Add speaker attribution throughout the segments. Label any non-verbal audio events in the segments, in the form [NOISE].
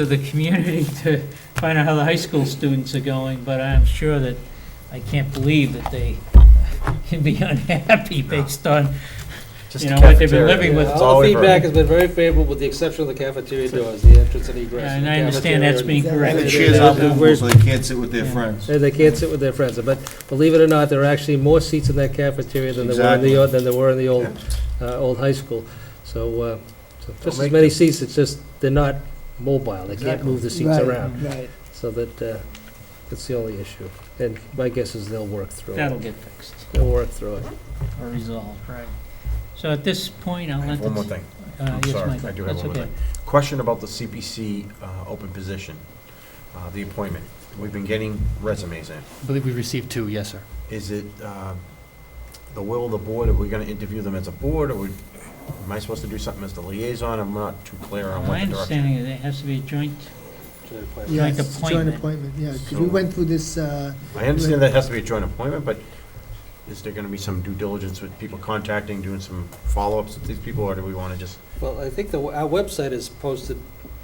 Speaker 1: to the community [LAUGHS] to find out how the high school students are going, but I'm sure that, I can't believe that they [LAUGHS] can be [LAUGHS] unhappy based on,
Speaker 2: Just
Speaker 1: you
Speaker 2: the
Speaker 1: know, what they've been
Speaker 2: cafeteria.
Speaker 1: living with.
Speaker 3: Yeah,
Speaker 2: It's
Speaker 3: All the
Speaker 2: always
Speaker 3: feedback
Speaker 2: right.
Speaker 3: has been very favorable, with the exception of the cafeteria doors, the entrance and egress.
Speaker 1: and I understand that's being
Speaker 3: Right.
Speaker 4: And
Speaker 1: corrected.
Speaker 4: the chairs are movable,
Speaker 3: Where's-
Speaker 4: so they can't sit with their friends.
Speaker 3: They- They can't sit with their friends, but believe it or not, there are actually more seats in that cafeteria than there were in the, o- than there were in the old, uh, old high school. So, uh, so just as
Speaker 2: make
Speaker 3: many seats, it's just, they're not mobile, they can't move the seats
Speaker 4: Right.
Speaker 3: around.
Speaker 4: Right.
Speaker 3: So that, uh, that's the only issue. And my guess is they'll work through
Speaker 1: That'll
Speaker 3: it.
Speaker 1: get fixed
Speaker 3: They'll work through it.
Speaker 1: or resolved, right. So at this point, I'll
Speaker 2: I have
Speaker 1: let the.
Speaker 2: One more thing.
Speaker 1: Uh,
Speaker 2: I'm
Speaker 1: yes,
Speaker 2: sorry,
Speaker 1: Michael,
Speaker 2: I do have
Speaker 1: that's
Speaker 2: one more
Speaker 1: okay.
Speaker 2: Question about the CPC uh, open position, uh, the appointment. We've been getting resumes in.
Speaker 5: I believe we received two, yes, sir.
Speaker 2: Is it uh, the will of the board? Are we going to interview them as a board, or we- am I supposed to do something as the liaison? I'm not too clear on
Speaker 1: My
Speaker 2: what the direction.
Speaker 1: understanding is it has to be a joint,
Speaker 4: Yeah,
Speaker 1: Joint
Speaker 4: it's a joint
Speaker 1: appointment.
Speaker 4: appointment, yeah, 'cause
Speaker 2: So-
Speaker 4: we went through this, uh,
Speaker 2: I understand that has to be a joint appointment, but is there going to be some due diligence with people contacting, doing some follow-ups with these people, or do we want to just?
Speaker 3: Well, I think the, our website is posted,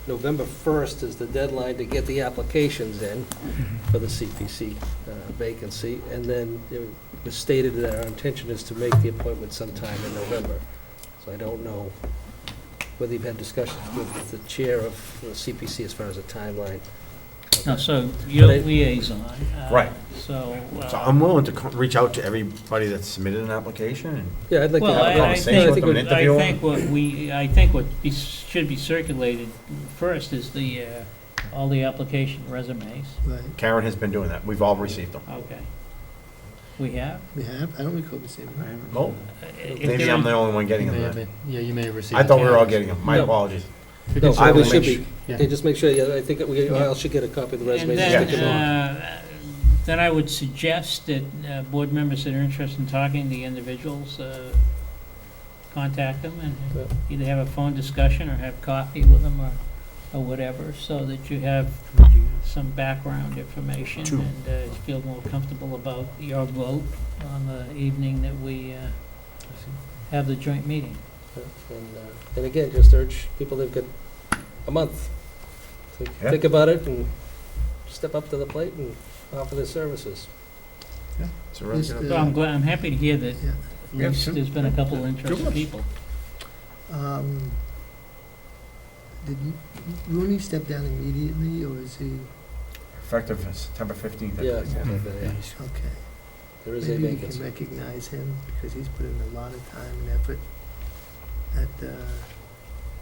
Speaker 3: November 1st is the deadline to get the applications in for the CPC uh, vacancy, and then it was stated that our intention is to make the appointment sometime in November. So I don't know whether you've had discussions with the chair of the CPC as far as a timeline.
Speaker 1: no, so you're
Speaker 3: But I-
Speaker 1: liaison. uh,
Speaker 2: Right.
Speaker 1: So. uh,
Speaker 2: So I'm willing to co- reach out to everybody that's submitted an application and
Speaker 3: Yeah, I'd like to
Speaker 1: Well,
Speaker 3: have
Speaker 1: I-
Speaker 3: a
Speaker 1: I
Speaker 2: conversation with
Speaker 3: conversation.
Speaker 1: think,
Speaker 3: think
Speaker 2: them
Speaker 3: we-
Speaker 2: and
Speaker 1: I
Speaker 2: interview
Speaker 1: think what we, I think what be- should be circulated first is the, uh, all the application resumes.
Speaker 4: right,
Speaker 2: Karen has been doing that. We've all received them.
Speaker 1: Okay. We have?
Speaker 4: we have, I don't recall the same.
Speaker 2: Well,
Speaker 1: Uh, if
Speaker 2: maybe
Speaker 1: there
Speaker 2: I'm
Speaker 1: is-
Speaker 2: the only one getting
Speaker 5: You may have
Speaker 2: them.
Speaker 5: been- Yeah, you may have received.
Speaker 2: I thought we were all getting
Speaker 5: candidates.
Speaker 2: them. My
Speaker 3: No.
Speaker 2: apologies.
Speaker 5: We
Speaker 3: No,
Speaker 5: did certainly
Speaker 3: we should
Speaker 5: make sure-
Speaker 3: be,
Speaker 5: yeah.
Speaker 3: yeah, just make sure, yeah, I think that we, I should get a copy of the
Speaker 1: And
Speaker 3: resumes.
Speaker 1: then,
Speaker 3: Stick them on.
Speaker 1: uh, then I would suggest that uh, board members that are interested in talking to the individuals, uh, contact them
Speaker 3: Yeah.
Speaker 1: and either have a phone discussion or have coffee with them or, or whatever, so that you have some background information
Speaker 2: True.
Speaker 1: and uh, feel more comfortable about your vote on the evening that we uh, have the joint meeting.
Speaker 3: And, uh, and again, just urge people, they've got a month. to
Speaker 2: Yeah.
Speaker 3: Think about it and step up to the plate and offer their services.
Speaker 2: It's a really
Speaker 4: Yes,
Speaker 2: good-
Speaker 1: So I'm glad, I'm happy to hear that
Speaker 4: Yeah.
Speaker 1: at
Speaker 2: Yeah,
Speaker 1: least
Speaker 2: sure.
Speaker 1: there's been a couple of interested
Speaker 2: much.
Speaker 1: people.
Speaker 4: Um, Did Rooney step down immediately, or is he,
Speaker 2: Effective September 15th. I
Speaker 3: Yeah,
Speaker 2: believe.
Speaker 3: something like that, yeah.
Speaker 4: okay.
Speaker 3: there is a
Speaker 4: Maybe we can
Speaker 3: vacancy.
Speaker 4: recognize him, because he's put in a lot of time and effort at, uh,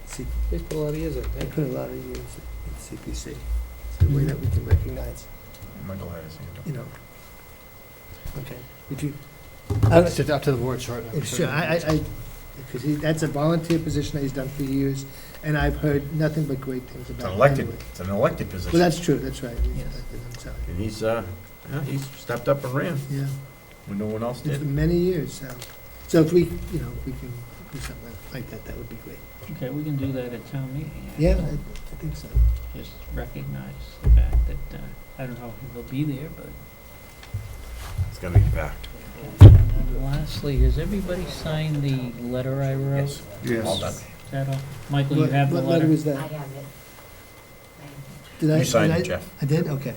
Speaker 4: C-
Speaker 3: He's put a lot of years in,
Speaker 4: he
Speaker 3: yeah.
Speaker 4: put a lot of years at CPC. It's a way that we can recognize, Mm-hmm.
Speaker 2: Michael had his hand up.
Speaker 4: you know. Okay, if you, I-
Speaker 5: It's up to the board, sure.
Speaker 4: Yeah, Sure, I, I, I, because he, that's a volunteer position that he's done for years, and I've heard nothing but great
Speaker 2: It's
Speaker 4: things about
Speaker 2: an
Speaker 4: him.
Speaker 2: elected,
Speaker 4: anyway.
Speaker 2: it's an elected
Speaker 4: Well,
Speaker 2: position.
Speaker 4: that's true, that's right. he's
Speaker 1: Yes.
Speaker 4: elected, I'm sorry.
Speaker 2: And he's, uh, yeah, he's stepped up and ran
Speaker 4: Yeah,
Speaker 2: when no one else
Speaker 4: it's for
Speaker 2: did.
Speaker 4: many years, so, so if we, you know, if we can do something like that, that would be great.
Speaker 1: Okay, we can do that at town meeting.
Speaker 4: Yeah,
Speaker 1: actually.
Speaker 4: I I think so.
Speaker 1: Just recognize the fact that, uh, I don't know if he'll be there, but.
Speaker 2: It's going to be back.
Speaker 1: And then Lastly, has everybody signed the letter I wrote?
Speaker 2: Yes.
Speaker 1: Is
Speaker 2: All done.
Speaker 1: that all? Michael, you
Speaker 4: What-
Speaker 1: have the
Speaker 4: What letter
Speaker 1: letter?
Speaker 4: was that?
Speaker 6: I have it. I have it.
Speaker 4: Did I-
Speaker 2: You
Speaker 4: did
Speaker 2: signed
Speaker 4: I-
Speaker 2: it, Jeff.
Speaker 4: I did, okay.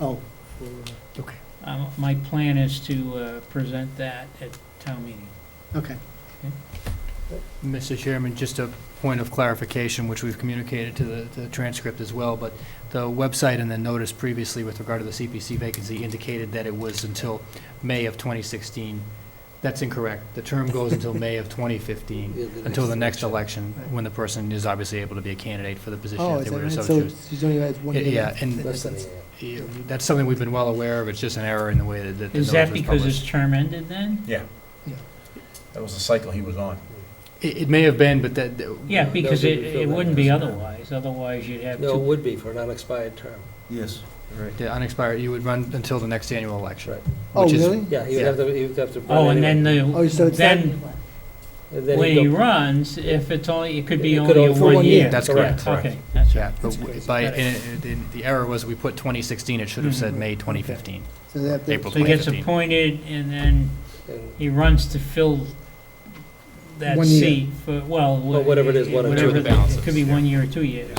Speaker 4: Oh, well,
Speaker 5: Okay.
Speaker 1: Um, My plan is to uh, present that at town meeting.
Speaker 4: uh, okay,
Speaker 5: Mr. Chairman, just a point of clarification, which we've communicated to the the transcript as well, but the website and the notice previously with regard to the CPC vacancy indicated that it was until May of 2016. That's incorrect. The term goes until May of 2015,
Speaker 4: Mm.
Speaker 3: Yeah,
Speaker 5: until the next election, when the person is obviously able to be a candidate for the position
Speaker 4: oh,
Speaker 5: if
Speaker 4: is
Speaker 5: they
Speaker 4: that
Speaker 5: were
Speaker 4: right,
Speaker 5: to so
Speaker 4: so
Speaker 5: choose.
Speaker 4: she's only had one
Speaker 5: Yeah,
Speaker 4: year.
Speaker 5: yeah,
Speaker 4: left.
Speaker 5: and-
Speaker 3: Less than a year.
Speaker 5: Yeah, That's something we've been well aware of, it's just an error in the way that that the
Speaker 1: Is
Speaker 5: notice was
Speaker 1: that
Speaker 5: published.
Speaker 1: because his term ended then?
Speaker 2: Yeah.
Speaker 4: Yeah.
Speaker 2: That was the cycle he was on.
Speaker 5: It, it may have been, but that, that-
Speaker 1: Yeah,
Speaker 3: No,
Speaker 1: because
Speaker 3: they
Speaker 1: it,
Speaker 3: didn't fill
Speaker 1: it
Speaker 3: that
Speaker 1: wouldn't be
Speaker 3: position.
Speaker 1: otherwise. Otherwise, you'd have
Speaker 3: No, it
Speaker 1: two.
Speaker 3: would be for an unexpired term.
Speaker 4: Yes.
Speaker 3: Right.
Speaker 5: the unexpired, you would run until the next annual election.
Speaker 3: Right.
Speaker 4: Oh,
Speaker 5: which is-
Speaker 4: really?
Speaker 3: Yeah, he would have to, he would have to. run
Speaker 1: Oh, and then
Speaker 3: anyway.
Speaker 4: Oh, so
Speaker 1: the,
Speaker 4: it's not-
Speaker 1: then
Speaker 3: And then
Speaker 1: when
Speaker 3: he'd
Speaker 1: he
Speaker 3: go-
Speaker 1: runs, if it's only, it could be
Speaker 3: It could
Speaker 1: only a
Speaker 3: only- for
Speaker 1: one
Speaker 4: one
Speaker 1: year.
Speaker 4: year.
Speaker 5: That's
Speaker 1: Correct.
Speaker 5: correct.
Speaker 1: Okay, that's right.
Speaker 5: Yeah, but w- by, and it- it- and the error was we put 2016, it should have said
Speaker 4: Mhm.
Speaker 5: May 2015.
Speaker 4: So they have to.
Speaker 5: April
Speaker 1: So he gets
Speaker 5: 2015.
Speaker 1: appointed and then
Speaker 3: and-
Speaker 1: he runs to fill that
Speaker 4: One year.
Speaker 1: seat for, well.
Speaker 3: Well, whatever it is, one or two.
Speaker 1: whatever
Speaker 5: Two of the
Speaker 1: the- It
Speaker 5: balances,
Speaker 1: could be
Speaker 5: yeah.
Speaker 1: one year or two years.